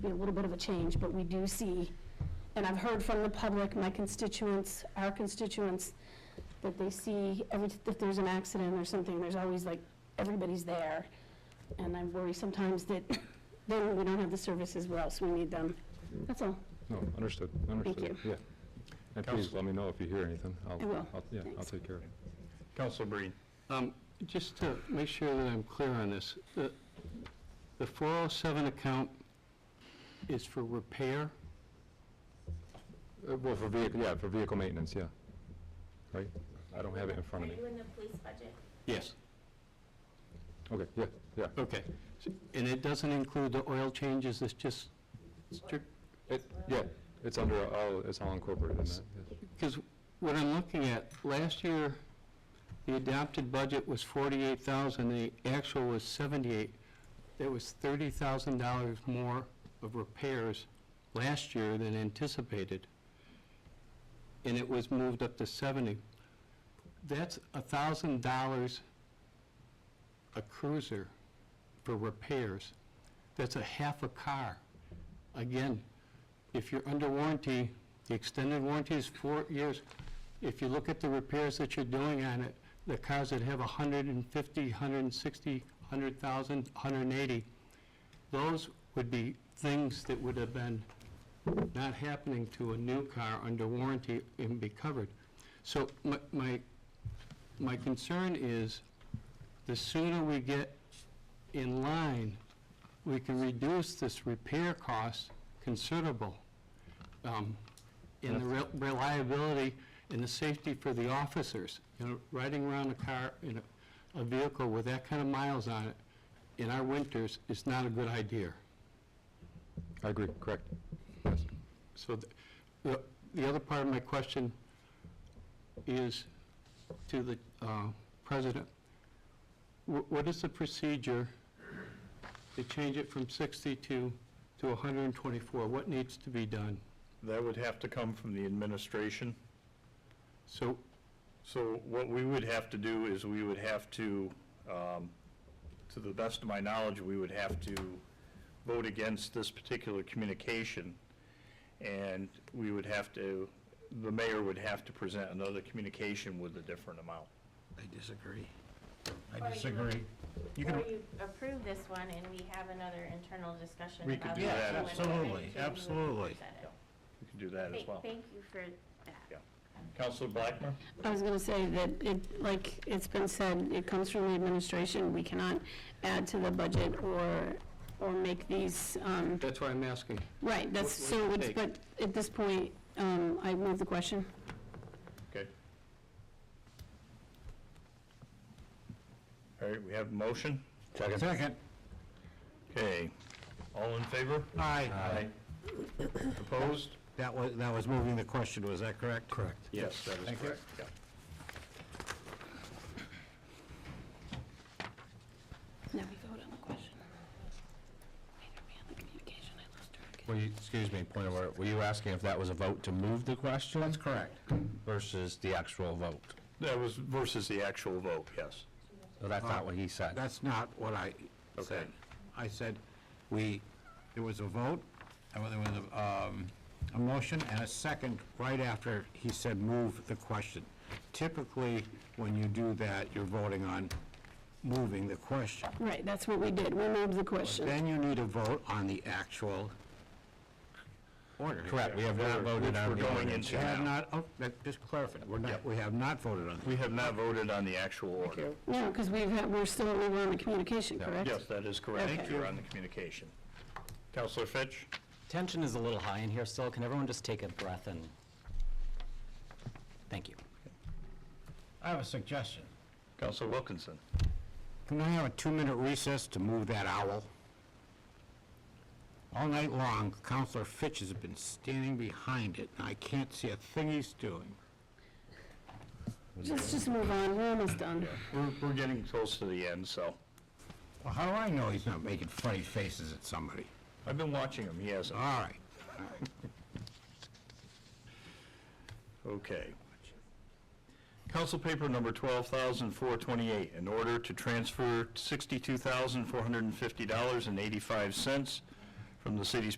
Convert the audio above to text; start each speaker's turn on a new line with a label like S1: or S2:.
S1: be a little bit of a change, but we do see, and I've heard from the public, my constituents, our constituents, that they see every, if there's an accident or something, there's always like, everybody's there. And I worry sometimes that then we don't have the services where else we need them. That's all.
S2: No, understood, understood, yeah. And please let me know if you hear anything.
S1: I will.
S2: I'll- Yeah, I'll
S1: Thanks.
S2: take care of it.
S3: Council Breen.
S4: Um, Just to make sure that I'm clear on this, the the 407 account is for repair?
S2: Uh, Well, for vehicle, yeah, for vehicle maintenance, yeah. Right? I don't have it in front of
S5: Are
S2: me.
S5: you in the police budget?
S4: Yes.
S2: Okay, yeah, yeah.
S4: Okay. S- And it doesn't include the oil changes, it's just strict,
S2: It, yeah, it's under, all. it's all incorporated in that. yes.
S4: because what I'm looking at, last year, the adopted budget was 48,000, the actual was 78. There was $30,000 more of repairs last year than anticipated, and it was moved up to 70. That's $1,000 a cruiser for repairs. That's a half a car. Again, if you're under warranty, the extended warranty is four years. If you look at the repairs that you're doing on it, the cars that have 150, 160, 100,000, 180, those would be things that would have been not happening to a new car under warranty and be covered. So my- my, my concern is, the sooner we get in line, we can reduce this repair cost considerable um, in the re- reliability and the safety for the officers. You know, riding around a car in a- a vehicle with that kind of miles on it in our winters is not a good idea.
S2: I agree, correct. Yes.
S4: So th- the the other part of my question is to the uh, president. Wh- What is the procedure to change it from 62 to 124? What needs to be done?
S3: That would have to come from the administration.
S4: So
S3: So what we would have to do is we would have to, um, to the best of my knowledge, we would have to vote against this particular communication. And we would have to, the mayor would have to present another communication with a different amount.
S6: I disagree.
S5: Or
S6: I
S5: you-
S6: disagree.
S3: You
S5: Or
S3: can,
S5: you approve this one and we have another internal discussion
S3: We could
S5: about.
S3: do
S5: the
S3: that
S5: other
S3: as
S5: one, and
S6: well. Absolutely,
S5: then you would
S6: absolutely.
S5: present it.
S3: you can do that as
S5: Thank-
S3: well.
S5: Thank you for that.
S3: Counselor Blackmer?
S1: I was gonna say that it, like it's been said, it comes from the administration. We cannot add to the budget or, or make these, um,
S4: that's why I'm asking.
S1: right, that's,
S4: What-
S1: so,
S4: what's
S1: it's-
S4: your
S1: but at this point, um, I move the question.
S3: Okay. All right, we have a motion?
S6: Second.
S3: Okay. All in favor?
S6: Aye.
S3: Opposed?
S6: That was, that was moving the question, was that correct? Correct.
S3: Yes, that is
S6: Thank you.
S3: correct. yeah.
S1: Now we vote on the question. the communication, I lost track.
S7: Were you, excuse me, point of order, were you asking if that was a vote to move the question? That's correct. Versus the actual vote?
S3: That was versus the actual vote, yes.
S7: So that's not what he said.
S6: That's not what I
S3: Okay.
S6: said. I said, we, there was a vote, and there was a, um, a motion and a second right after he said move the question. Typically, when you do that, you're voting on moving the question.
S1: Right, that's what we did. We moved the question.
S6: Then you need a vote on the actual order.
S7: Correct, we have not voted
S3: Which
S7: on the
S3: we're going
S7: ordinance.
S3: into
S6: We have
S3: now.
S6: not, oh, that- just clarify, we're not, we have not voted on
S3: We have not voted on the actual order.
S1: No, because we've had, we're still, we were on the communication, correct?
S3: Yes, that is correct.
S1: Okay.
S3: You're on the communication. Counselor Fitch?
S8: Tension is a little high in here still. Can everyone just take a breath and, thank you.
S6: I have a suggestion.
S3: Counselor Wilkinson?
S6: Can we have a two-minute recess to move that owl? All night long, Counselor Fitch has been standing behind it, and I can't see a thing he's doing.
S1: Let's just move on. We're almost done.
S3: We're, we're getting close to the end, so.
S6: Well, how do I know he's not making funny faces at somebody?
S3: I've been watching him, he hasn't.
S6: All right.
S3: Okay. Council paper number 12,428, in order to transfer $62,450.85 from the city's